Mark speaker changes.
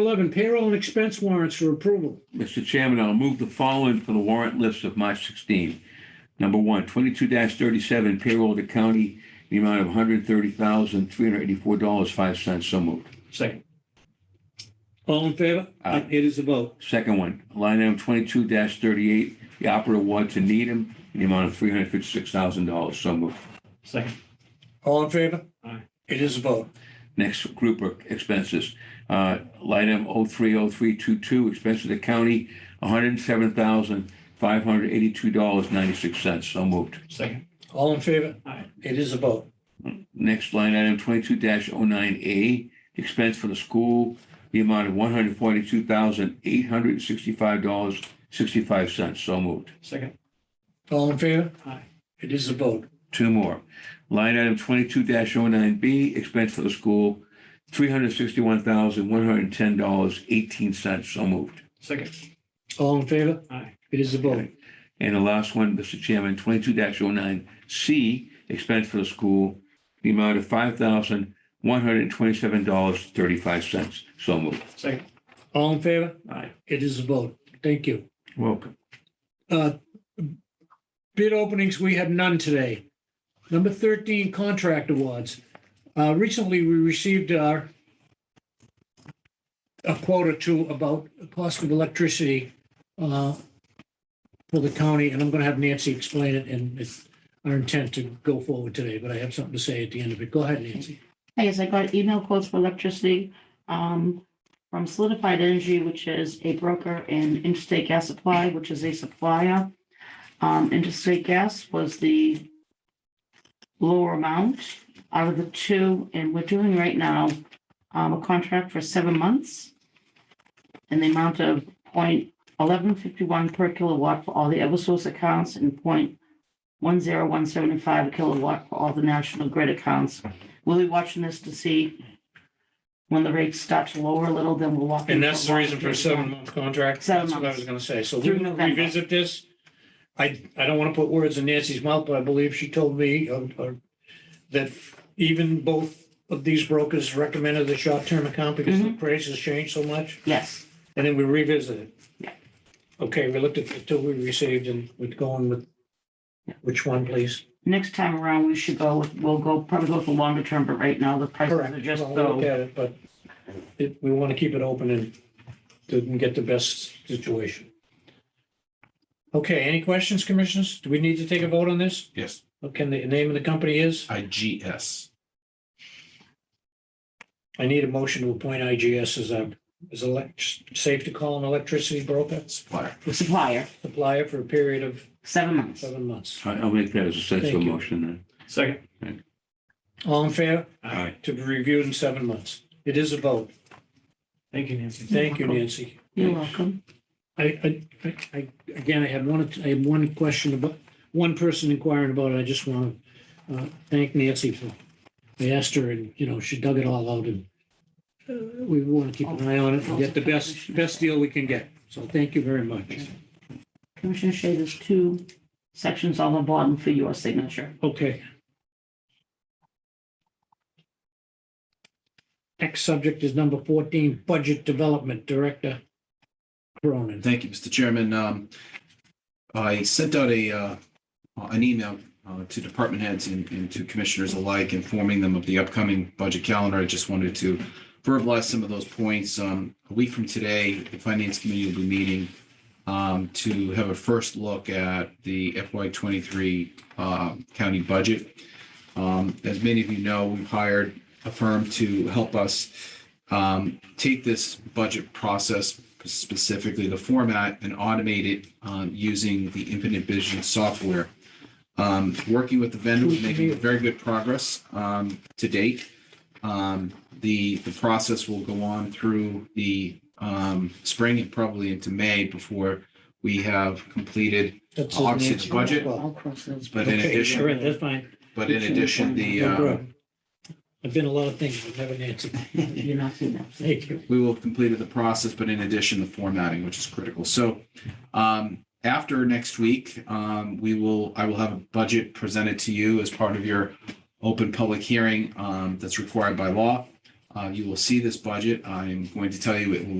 Speaker 1: 11, payroll and expense warrants for approval.
Speaker 2: Mr. Chairman, I'll move the following for the warrant list of March 16. Number one, 22-37 payroll to county, the amount of $130,384.05. So moved.
Speaker 3: second,
Speaker 1: All in favor?
Speaker 2: Aye.
Speaker 1: It is a vote.
Speaker 2: Second one, line item 22-38, the opera award to Needham, in the amount of $356,000. So moved.
Speaker 3: second,
Speaker 1: All in favor?
Speaker 3: Aye.
Speaker 1: It is a vote.
Speaker 2: Next group of expenses, uh, line item 030322, expenses to county, $107,582.96. So moved.
Speaker 3: second,
Speaker 1: All in favor?
Speaker 3: Aye.
Speaker 1: It is a vote.
Speaker 2: Next line item, twenty-two 9 A, expense for the school, the amount of one hundred forty-two thousand, eight hundred sixty-five dollars, sixty-five cents. So moved.
Speaker 3: second,
Speaker 1: All in favor?
Speaker 3: Aye.
Speaker 1: It is a vote.
Speaker 2: Two more. Line item twenty-two 9 B, expense for the school, three hundred sixty-one thousand, one hundred and ten dollars, eighteen cents. So moved.
Speaker 3: second,
Speaker 1: All in favor?
Speaker 3: aye,
Speaker 1: It is a vote.
Speaker 2: And the last one, Mr. Chairman, twenty-two 9 C, expense for the school, the amount of five thousand, one hundred twenty-seven dollars, thirty-five cents. So moved.
Speaker 3: second,
Speaker 1: All in favor?
Speaker 2: Aye.
Speaker 1: It is a vote. Thank you.
Speaker 2: Welcome.
Speaker 1: Uh, Bid openings, we have none today. Number 13, contract awards. Uh, Recently, we received our a quote or two about the cost of electricity uh, for the county, and I'm going to have Nancy explain it, and it's our intent to go forward today, but I have something to say at the end of it. Go ahead, Nancy.
Speaker 4: I guess I got email quotes for electricity um, from Solidified Energy, which is a broker, and Interstate Gas Supply, which is a supplier. Um, Interstate Gas was the lower amount out of the two, and we're doing right now um, a contract for seven months in the amount of point eleven fifty-one per kilowatt for all the Eversource accounts and point one zero one seventy-five kilowatt for all the National Grid accounts we'll be watching this to see when the rates start to lower a little, then we'll walk.
Speaker 1: And
Speaker 4: into
Speaker 1: that's the reason for a seven-month contract.
Speaker 4: Seven
Speaker 1: That's what I
Speaker 4: months.
Speaker 1: was gonna say. So we
Speaker 4: Through
Speaker 1: will
Speaker 4: November.
Speaker 1: revisit this. I, I don't want to put words in Nancy's mouth, but I believe she told me uh, uh, that even both of these brokers recommended the short-term account because
Speaker 4: Mm-hmm.
Speaker 1: the prices changed so much,
Speaker 4: Yes,
Speaker 1: and then we revisited.
Speaker 4: Yeah.
Speaker 1: Okay, we looked at the two we received and we're going with
Speaker 4: Yeah.
Speaker 1: which one, please?
Speaker 4: next time around, we should go with, we'll go, probably go for longer term, but right now the prices
Speaker 1: Correct.
Speaker 4: are just
Speaker 1: Well, we'll Look
Speaker 4: so.
Speaker 1: at it, but it, we want to keep it open and to get the best situation. Okay, any questions, commissioners? Do we need to take a vote on this?
Speaker 5: Yes,
Speaker 1: Can the name of the company is?
Speaker 5: IGS.
Speaker 1: I need a motion to appoint IGS as a, as elect, safe to call an electricity broker
Speaker 5: Supplier.
Speaker 4: The supplier,
Speaker 1: supplier for a period of
Speaker 4: seven months.
Speaker 1: seven months.
Speaker 2: I- I'll make that as a sensible
Speaker 1: Thank you.
Speaker 2: motion then.
Speaker 3: second,
Speaker 1: All in favor?
Speaker 3: aye,
Speaker 1: To be reviewed in seven months. It is a vote.
Speaker 3: thank you, Nancy.
Speaker 1: Thank you, Nancy.
Speaker 4: You're welcome.
Speaker 1: I, I- I, I, again, I had one, I had one question about, one person inquiring about it. I just want to uh, thank Nancy for, I asked her and, you know, she dug it all out and uh, we want to keep an eye on it and get the best, best deal we can get. So thank you very much.
Speaker 4: Commissioner Shea, there's two sections on the bottom for your signature.
Speaker 1: Okay. Next subject is number 14, Budget Development Director Cronin.
Speaker 5: Thank you, Mr. Chairman. Um, I sent out a, uh, an email uh, to department heads and and to commissioners alike, informing them of the upcoming budget calendar. I just wanted to verbalize some of those points. Um, A week from today, the Finance Committee will be meeting um, to have a first look at the FY twenty-three county budget. Um, As many of you know, we've hired a firm to help us um, take this budget process, specifically the format, and automate it um, using the Infinite Vision software. Um, Working with the vendor, we're making very good progress um, to date. Um, The, the process will go on through the um, spring and probably into May before we have completed.
Speaker 1: That's
Speaker 5: I'll obviously the
Speaker 1: Nancy.
Speaker 5: budget,
Speaker 4: I'll cross those.
Speaker 5: But in
Speaker 1: Okay,
Speaker 5: addition,
Speaker 1: all right, that's fine.
Speaker 5: but in addition, the,
Speaker 1: No
Speaker 5: uh,
Speaker 1: problem. I've been a lot of things, but never Nancy.
Speaker 4: You're not seeing that.
Speaker 1: Thank you.
Speaker 5: we will have completed the process, but in addition, the formatting, which is critical. So um, after next week, um, we will, I will have a budget presented to you as part of your open public hearing um, that's required by law. Uh, You will see this budget. I'm going to tell you it will